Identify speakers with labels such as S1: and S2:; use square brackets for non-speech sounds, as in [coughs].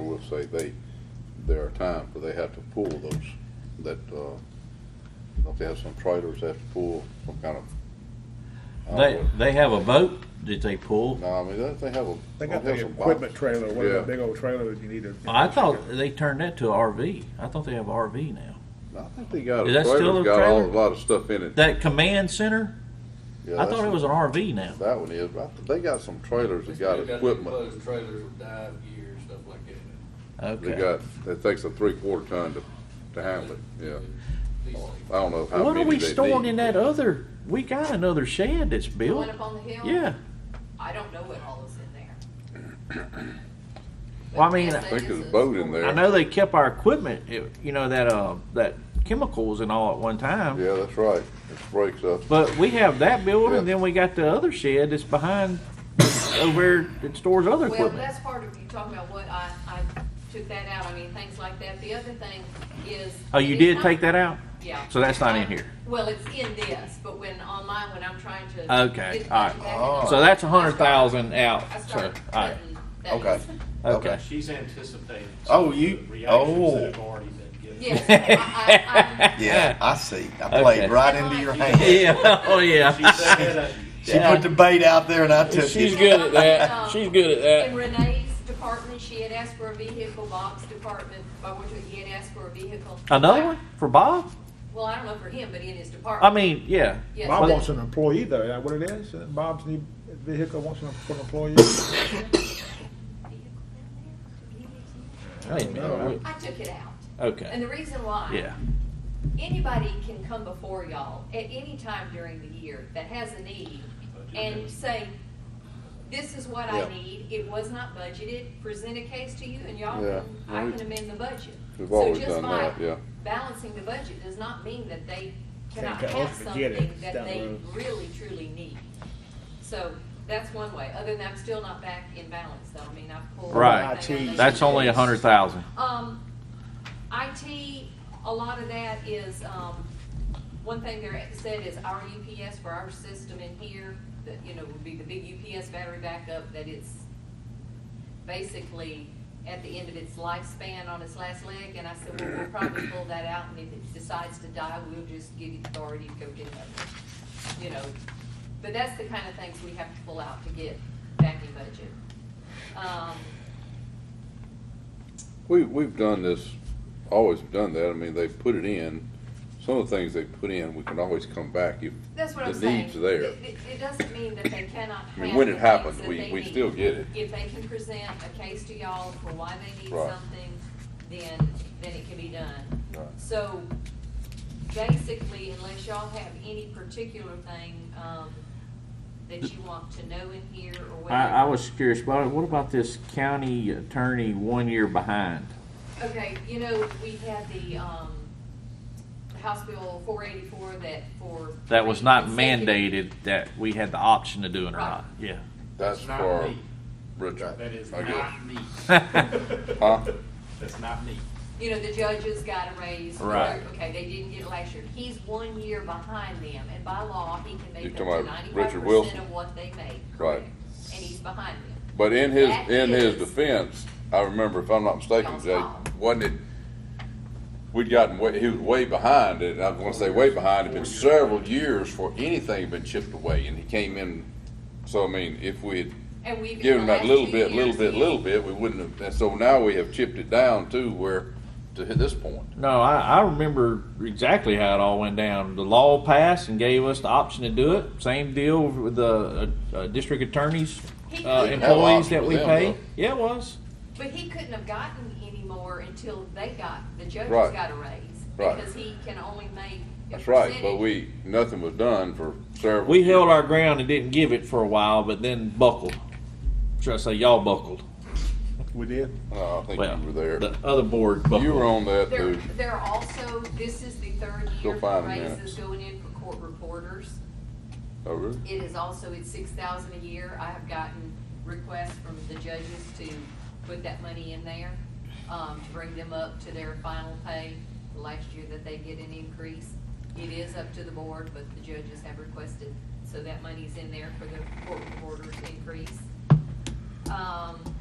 S1: would say they, there are times where they have to pull those, that, uh, don't they have some trailers they have to pull, some kind of. I
S2: They,
S1: don't
S2: they have a boat that they pull.
S1: know. No, I mean, don't they have a.
S3: They
S1: don't
S3: got
S1: they
S3: the
S1: have some
S3: equipment
S1: boxes?
S3: trailer, one of
S1: Yeah.
S3: the big old trailers you need to.
S2: Oh, I thought they turned that to a RV. I thought they have RV now.
S1: I think they got a
S2: Is that still
S1: trailer,
S2: a
S1: got all, a
S2: trailer?
S1: lot of stuff in it.
S2: That command center,
S1: Yeah,
S2: I thought
S1: that's-
S2: it was an RV now.
S1: That one is, but I think they got some trailers that got
S4: They
S1: equipment,
S4: Closed trailers with dive gear, and stuff like that.
S1: they
S2: Okay.
S1: got, it takes a three quarter ton to, to handle it, yeah.
S4: These things.
S1: I don't know how
S2: What
S1: many
S2: are we
S1: they
S2: storing
S1: need.
S2: in that other, we got another shed that's
S5: The
S2: built.
S5: one up on the hill?
S2: Yeah.
S5: I don't know what all is in there.
S2: Well, I mean,
S5: Yes,
S2: I
S1: think there's a
S5: is.
S1: boat in there.
S2: I know they kept our equipment, it- you know, that, uh, that chemicals and all at one time.
S1: Yeah, that's right, it breaks up.
S2: But we have that building,
S1: Yeah.
S2: then we got the other shed that's behind [coughs] over there that stores other
S5: Well,
S2: equipment.
S5: that's part of you talking about what I, I took that out. I mean, things like that. The other thing is.
S2: Oh, you
S5: it's
S2: did
S5: not-
S2: take that out?
S5: Yeah. Um,
S2: So that's not in here.
S5: Well, it's in this, but when online, when I'm trying to.
S2: Okay,
S5: get the
S2: all right.
S5: budget back
S1: Uh,
S5: in,
S2: So that's a hundred thousand out,
S5: I
S2: so,
S5: started
S2: all right,
S5: cutting
S6: Okay.
S5: things.
S2: okay.
S7: She's anticipating.
S6: Oh,
S7: some of
S6: you-
S7: the Reactions
S6: oh.
S7: that have already been given.
S5: Yes,
S2: [laughs]
S5: I, I, I'm.
S6: Yeah, I see. I played
S2: Okay.
S6: right into your
S2: [laughs]
S6: hand.
S2: Yeah, oh,
S7: She's
S2: yeah.
S7: saying that
S6: She put the bait out there, and I took
S2: She's
S6: it.
S2: good at
S5: [laughs]
S2: that, she's good at
S5: In
S2: that.
S5: Renee's department, she had asked for a vehicle, Bob's department, by which he had asked for a vehicle.
S2: Another one for Bob?
S5: Well, I don't know for him, but in his
S2: I
S5: department.
S2: mean, yeah,
S5: Yes,
S3: Bob
S5: but-
S3: wants an employee though, is that what it is? Bob's new vehicle wants an for an employee?
S2: wait a minute,
S5: I took it out. And
S2: okay,
S5: the reason why.
S2: yeah.
S5: Anybody can come before y'all at any time during the year that has a need and say, this is what
S1: Yeah.
S5: I need, it was not budgeted, present a case to you and y'all,
S1: Yeah.
S5: can I
S1: We-
S5: can amend the budget.
S1: We've
S5: So
S1: always
S5: just
S1: done
S5: by
S1: that, yeah.
S5: Balancing the budget does not mean that they cannot
S3: Can't go
S5: have
S3: and get it
S5: something that
S3: down the
S5: they
S3: road.
S5: really truly need. So that's one way. Other than that, I'm still not back in balance though. I mean, I've pulled.
S2: Right.
S5: everything out of
S2: That's
S5: there.
S2: only a hundred thousand.
S5: Um, IT, a lot of that is, um, one thing they're said is our UPS for our system in here, that, you know, would be the big UPS battery backup, that it's basically at the end of its lifespan on its last leg, and I said, well, we'll probably pull that out, and if it decides to die, we'll just give you authority to go get another. one. You know, but that's the kind of things we have to pull out to get back in budget. Um,
S1: We, we've done this, always done that, I mean, they put it in, some of the things they put in, we can always come back if
S5: That's what I'm
S1: the
S5: saying.
S1: need's there.
S5: It, it- it doesn't mean that they cannot have.
S1: I mean, when
S5: the
S1: it
S5: things
S1: happens,
S5: that
S1: we,
S5: they
S1: we
S5: need.
S1: still get it.
S5: If they can present a case to y'all for why they need
S1: Right.
S5: something, then, then it can be done.
S1: Right.
S5: So basically, unless y'all have any particular thing, um, that you want to know in here or whatever.
S2: I, I was curious, about it. what about this county attorney one year behind?
S5: Okay, you know, we had the, um, House Bill four eighty-four that for.
S2: That was not
S5: three consecutive-
S2: mandated that we had the option to do it or
S5: Right.
S2: not, yeah.
S1: That's
S7: That's not
S1: for
S7: me.
S1: Richard,
S7: That is
S1: I guess.
S7: not me.
S1: [laughs] Huh?
S7: That's not me.
S5: you know, the judges got a raise.
S2: Right.
S5: Okay, they didn't get it last year. He's one year behind them, and by law, he can
S1: You're
S5: make up
S1: talking
S5: to
S1: about
S5: ninety-five
S1: Richard Wilson?
S5: percent of what they make.
S1: Right.
S5: correct? And he's behind them.
S1: But in his,
S5: That
S1: in his
S5: is-
S1: defense, I remember, if I'm not mistaken,
S5: Y'all's
S1: Jay,
S5: fault.
S1: wasn't it, we'd gotten way, he was way behind it, and I was gonna say way behind, it'd been several years for anything had been chipped away, and he came in, so I mean, if we had
S5: And we've.
S1: give them that
S5: the last
S1: little
S5: two
S1: bit, little
S5: years,
S1: bit,
S5: he-
S1: little bit, we wouldn't have, and so now we have chipped it down to where, to hit this point.
S2: No, I, I remember exactly how it all went down. The law passed and gave us the option to do it. Same deal with the uh, uh, district attorneys,
S5: He
S2: uh,
S5: couldn't have,
S2: employees that we
S1: Yeah,
S2: pay.
S1: well.
S2: Yeah, it was.
S5: but he couldn't have gotten any more until they got, the judges
S1: Right.
S5: got a raise.
S1: Right.
S5: Because he can only make. a
S1: That's right, but
S5: percentage.
S1: we, nothing was done for several.
S2: We held
S1: years.
S2: our ground and didn't give it for a while, but then buckled. Should I say y'all buckled?
S3: We did.
S1: No, Oh, I think
S2: Well,
S1: you were
S2: the
S1: there.
S2: other board buckled.
S1: You were on that
S5: There,
S1: too.
S5: there are also, this is the third year for
S1: find the
S5: raises
S1: minutes.
S5: going in for court reporters.
S1: Oh, really?
S5: It is also, it's six thousand a year. I have gotten requests from the judges to put that money in there, um, to bring them up to their final pay, the last year that they get an increase. It is up to the board, but the judges have requested, so that money's in there for the court reporter's increase. Um,